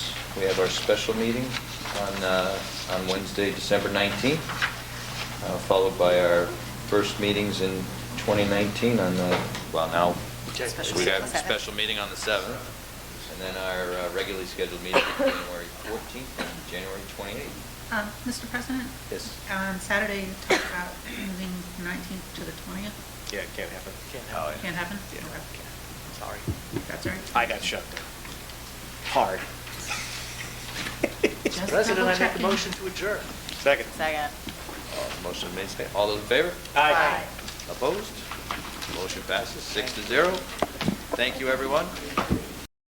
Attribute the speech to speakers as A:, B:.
A: We have our special meeting on, uh, on Wednesday, December 19th, uh, followed by our first meetings in 2019 on, the well, now,
B: Okay.
A: so we have a special meeting on the 7th, and then our uh, regularly scheduled meeting on January 14th and January 28th.
C: Um, Mr. President?
A: Yes.
C: On Saturday, you talked about moving 19th to the 20th.
B: Yeah, it can't happen. Can't
C: happen. Can't happen?
B: Yeah,
C: Okay.
B: can't. sorry.
C: That's all right.
B: I got shut down. Hard.
C: Just President, I make a double-checking. motion
B: to adjourn. Second.
D: Second.
A: Uh, Motion made, sta- all those in favor?
B: Aye.
A: Opposed? Motion passes six to zero. Thank you, everyone.